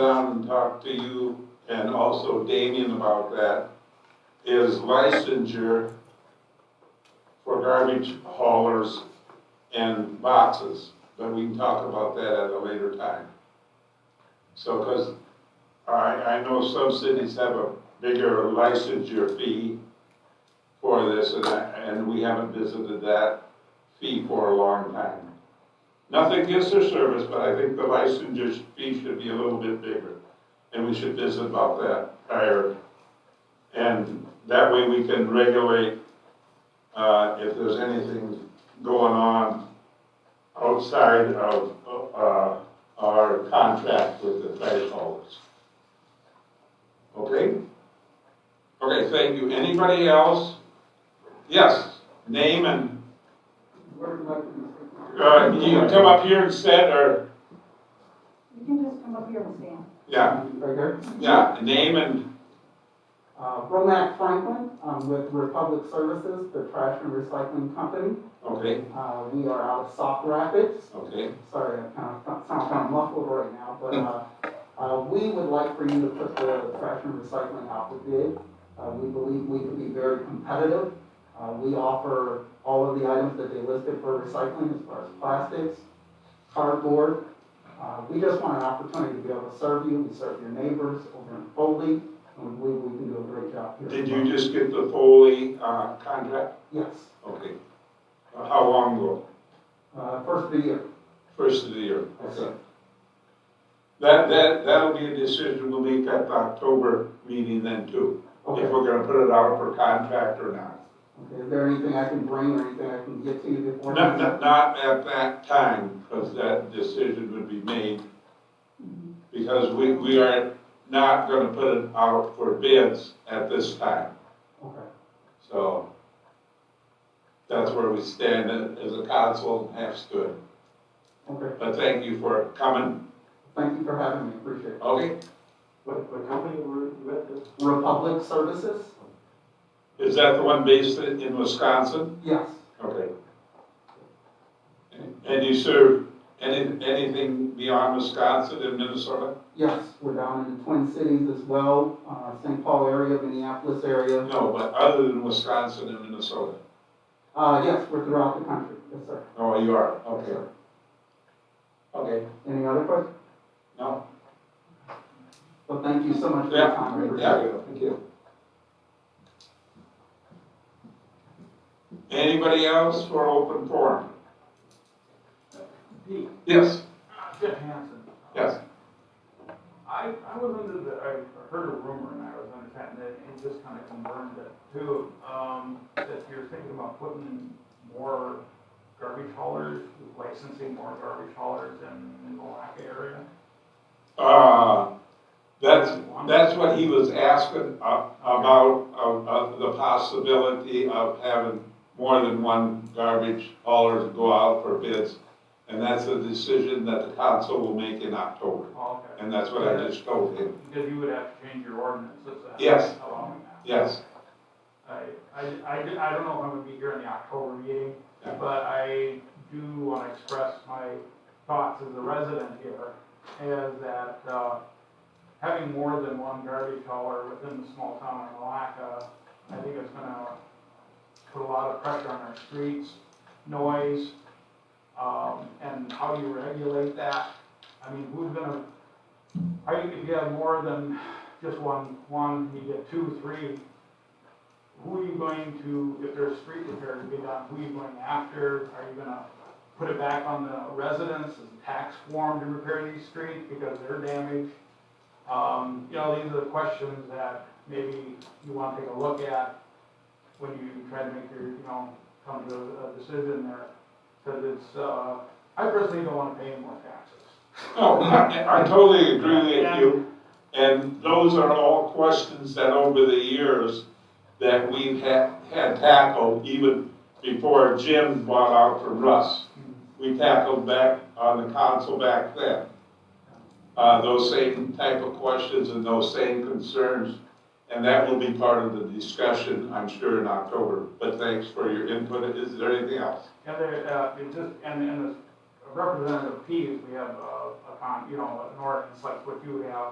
down and talk to you and also Damien about that, is licensure for garbage haulers and boxes, but we can talk about that at a later time. So, because I, I know some cities have a bigger licensure fee for this, and, I- and we haven't visited that fee for a long time. Nothing against their service, but I think the licensure fee should be a little bit bigger, and we should visit about that prior. And that way we can regulate, uh, if there's anything going on outside of, uh, our contract with the fire haulers. Okay? Okay, thank you. Anybody else? Yes, name and Where do I come uh, you can come up here instead, or, You can just come up here and stand. yeah, from? Right here. yeah, name and, Uh, Romac Franklin, um, with Republic Services, the trash and recycling company. okay, Uh, we are out of Soft Rapids. okay, Sorry, I kind of sound kind of muffled right now, but, uh, uh, we would like for you to put the trash and recycling out for bid. Uh, we believe we could be very competitive. Uh, we offer all of the items that they listed for recycling as far as plastics, cardboard. Uh, we just want an opportunity to be able to serve you, we serve your neighbors over in Foley, and we believe we can do a great job here. did you just get the Foley, uh, contract? Yes, Okay. Uh, How long ago? uh, first of the year. First of the year, Yes, okay. sir. That, that, that'll be a decision we'll make at the October meeting then too, Okay. if we're gonna put it out for contract or not. Okay, is there anything I can bring or anything I can get to you before? Not, not, not at that time, because that decision would be made. Because we, we are not gonna put it out for bids at this time, Okay, so. That's where we stand as a council and have stood. okay. But thank you for coming, Thank you for having me, appreciate it. okay? What, what company were you at this? Republic Services? Is that the one based in in Wisconsin? Yes. Okay. And you serve any, anything beyond Wisconsin and Minnesota? Yes, we're down in the Twin Cities as well, uh, St. Paul area, Minneapolis area. No, but other than Wisconsin and Minnesota? Uh, yes, we're throughout the country, yes, sir. Oh, you are, Yes, okay. sir. Okay. Any other questions? No? Well, thank you so much for your time, I appreciate it. Yeah, thank you. Anybody else for open forum? Pete, Yes, Jeff Hansen. yes. I, I was under the, I heard a rumor and I was under that, and it just kind of confirmed it too, um, that you're thinking about putting more garbage haulers, licensing more garbage haulers in the Malacca area. Uh, that's, that's what he was asking uh, about, uh, uh, the possibility of having more than one garbage hauler to go out for bids. And that's a decision that the council will make in October, Oh, Okay. and that's what I just told him. Because you would have to change your ordinances. uh, Yes. Allowing that. Yes. I, I, I di- I don't know if I'm gonna be here in the October meeting, Yeah. but I do wanna express my thoughts as a resident here, is that, uh, having more than one garbage hauler within the small town of Malacca, I think it's gonna put a lot of pressure on our streets, noise, um, and how you regulate that. I mean, who's gonna, how you can get more than just one, one, you get two, three, who are you going to, if there's street repair to be done, who are you going after? Are you gonna put it back on the residents as a tax form to repair these streets because they're damaged? Um, you know, these are the questions that maybe you wanna take a look at when you try to make your, you know, come to a decision there. Cause it's, uh, I personally don't wanna pay any more taxes. No, Oh, I I totally agree with you, and those are all questions that over the years that we've had, had tackled, even before Jim bought out from Russ. We tackled back on the council back then. Uh, those same type of questions and those same concerns, and that will be part of the discussion, I'm sure, in October. But thanks for your input. Is there anything else? And there, uh, it just, and, and as Representative Pease, we have a, a upon, you know, an ordinance like what you have,